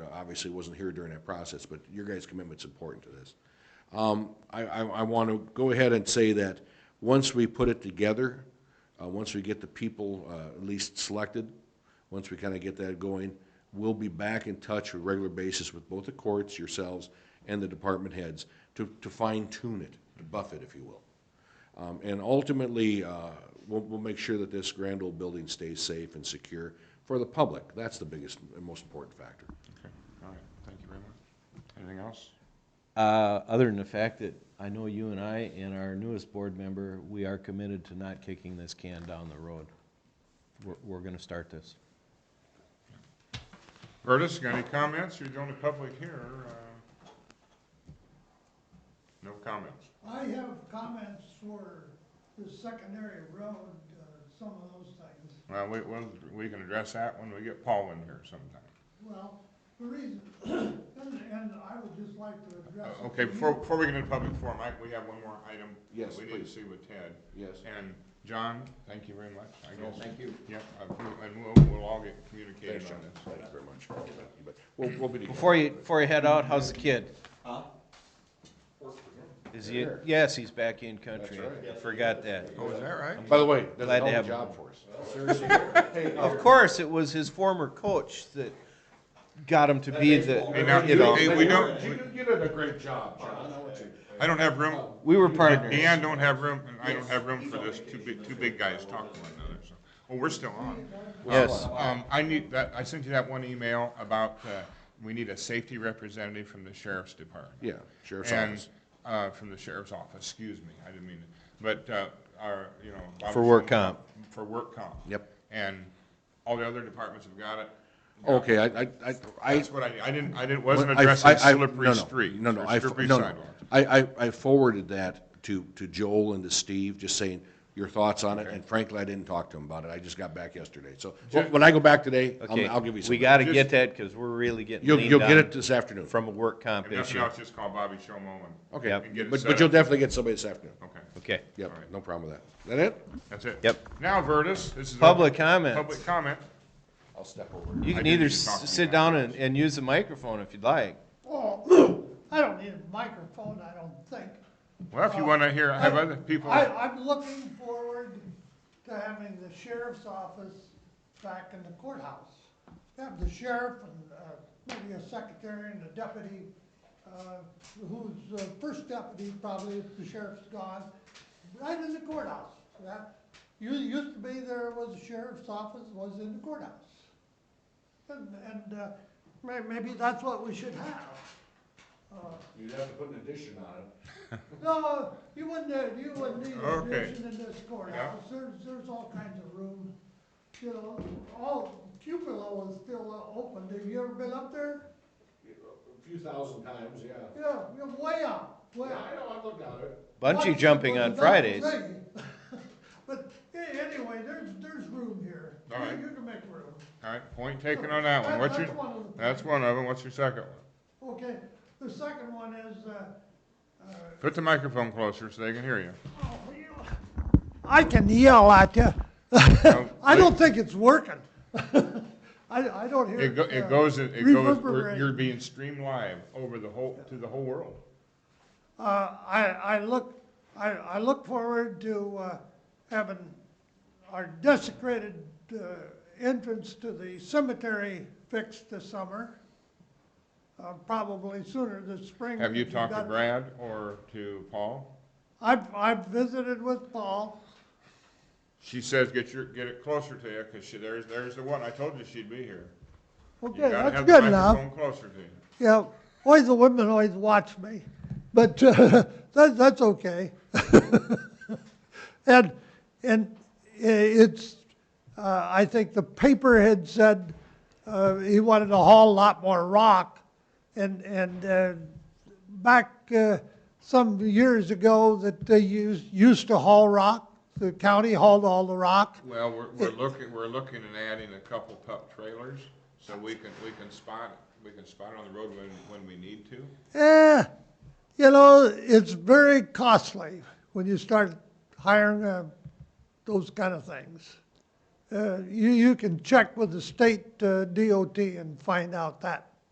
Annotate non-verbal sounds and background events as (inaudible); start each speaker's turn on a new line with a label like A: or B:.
A: uh, obviously wasn't here during that process, but your guys' commitment's important to this. Um, I, I, I want to go ahead and say that once we put it together, uh, once we get the people, uh, at least selected, once we kind of get that going, we'll be back in touch on a regular basis with both the courts, yourselves, and the department heads to, to fine tune it, to buff it, if you will. Um, And ultimately, uh, we'll, we'll make sure that this grand old building stays safe and secure for the public. That's the biggest and most important factor.
B: Okay, all right, thank you very much. Anything else?
C: Uh, Other than the fact that I know you and I and our newest board member, we are committed to not kicking this can down the road. We're, we're going to start this.
B: Curtis, got any comments? You're the only public here. uh, No comments.
D: I have comments for the secondary road, uh, some of those things.
B: Well, we, we'll, we can address that when we get Paul in here sometime.
D: Well, the reason, (coughs) and, and I would just like to address.
B: Uh, Okay, before, before we get into public forum, I, we have one more item.
A: Yes,
B: We need to
A: please.
B: see with Ted.
A: Yes.
B: And John, thank you very much, I guess.
A: thank you.
B: Yep, I- we- and we'll, we'll all get communicated
A: Thanks,
B: on
A: John.
B: this.
A: Thank you very much. You bet. We'll, we'll be together.
C: Before you, before you head out, how's the kid? Is he, yes, he's back in country.
A: That's
C: I Forgot that.
B: Oh, is that right?
A: By the way, that's
C: Glad
A: a
C: to
A: hell of a
C: have him.
A: job for us. Seriously.
C: Of course, it was his former coach that got him to be the,
B: Hey, now,
C: you know,
B: hey, we don't,
A: You
B: we-
A: did- you did a great job, John.
B: I don't have room,
A: Oh,
C: we were partners.
B: Deanne don't have room, and I don't have room for this, two big, two big guys talking to one another, so. Well, we're still on.
C: Yes.
B: Um, I need that, I sent you that one email about, uh, we need a safety representative from the sheriff's department.
A: Yeah, sheriff's
B: And,
A: office.
B: uh, from the sheriff's office, excuse me, I didn't mean, to. but, uh, our, you know. Bob
C: For work
B: Schulman-
C: comp.
B: For work comp.
A: Yep.
B: And all the other departments have got it.
A: Okay, I, I, I- Oh, I,
B: That's what I, I didn't, I didn't, wasn't
A: I- I-
B: addressing
A: I- no,
B: slippery
A: no,
B: streets
A: No, no,
B: or
A: I,
B: slippery
A: no, no.
B: sidewalks.
A: I, I, I forwarded that to, to Joel and to Steve, just saying your thoughts on it,
B: Okay.
A: and frankly, I didn't talk to him about it, I just got back yesterday, so, oh,
B: Ju-
A: when I go back today,
C: Okay,
A: I'll, I'll give you some.
C: We got to
B: Just-
C: get that because we're really getting
A: You'll, you'll
C: leaned
A: get it
C: on
A: this afternoon.
C: from a work comp
B: If nothing
C: issue.
B: else, just call Bobby Shomo and.
A: Okay,
C: Yep.
B: And get it
A: but,
B: set
A: but you'll
B: up.
A: definitely get somebody this afternoon,
B: Okay,
C: Okay.
A: yep,
B: All right.
A: no problem with that. Is that it?
B: that's it.
C: Yep.
B: Now, Vertus, this is.
C: Public
B: open-
C: comments.
B: Public comment.
A: I'll step over.
C: You
B: I
C: can
B: do
C: either
B: need to talk to
C: s-
B: you
C: sit down and, and use the microphone if you'd like.
D: Oh, (coughs) I don't need a microphone, I don't think.
B: Well, if you want to hear, I have other people.
D: I, I'm looking forward to having the sheriff's office back in the courthouse. Have the sheriff and, uh, maybe a secretary and a deputy, uh, who's the first deputy probably if the sheriff's gone, right in the courthouse. That, you, used to be there was a sheriff's office, was in the courthouse. And, and, uh, may, maybe that's what we should have. Uh,
A: You'd have to put an addition on it.
D: No, you wouldn't, uh, you wouldn't need a
B: Okay.
D: addition in this courthouse, there's, there's all kinds of room, you know, all, Cupelo is still uh, open, have you ever been up there?
A: A few thousand times, yeah.
D: Yeah, you're way up, way up.
A: know, I've looked at it.
C: Bungee jumping on
D: Well,
C: Fridays.
D: that's me. (laughs) But a- anyway, there's, there's room here, You-
B: All right.
D: you can make room,
B: All right, point taken on that one.
D: That-
B: What's your,
D: that's one of the-
B: that's one of them. What's your second one?
D: okay, the second one is, uh, uh,
B: Put the microphone closer so they can hear you.
D: I can yell at you. (laughs) I
B: please.
D: don't think it's working. (laughs) I, I don't hear.
B: It go, it
D: uh,
B: goes, it goes, we're-
D: reverberating.
B: you're being streamed live over the whole, to the whole world.
D: Uh, I, I look, I, I look forward to, uh, having our desecrated, uh, entrance to the cemetery fixed this summer. Uh, probably sooner this spring.
B: Have you
D: if
B: talked to
D: got-
B: Brad or to Paul?
D: I've, I've visited with Paul.
B: She says, get your, get it closer to you, cause she, there's, there's the one. I told you she'd be here. You
D: Okay,
B: gotta
D: that's
B: have the
D: good enough.
B: microphone Closer to you.
D: Yeah, always the women always watch me, but uh, (laughs) that, that's okay. (laughs) and and i- it's, uh, I think the paper had said uh, he wanted to haul a lot more rock, and and uh, back uh, some years ago that they used used to haul rock. The county hauled all the rock.
B: Well, we're, we're looking, we're looking at adding a couple pup trailers, so we can, we can spot, we can spot it on the road when, when we need to.
D: Eh, you know, it's very costly when you start hiring uh, those kind of things. Uh, you, you can check with the state uh, DOT and find out that.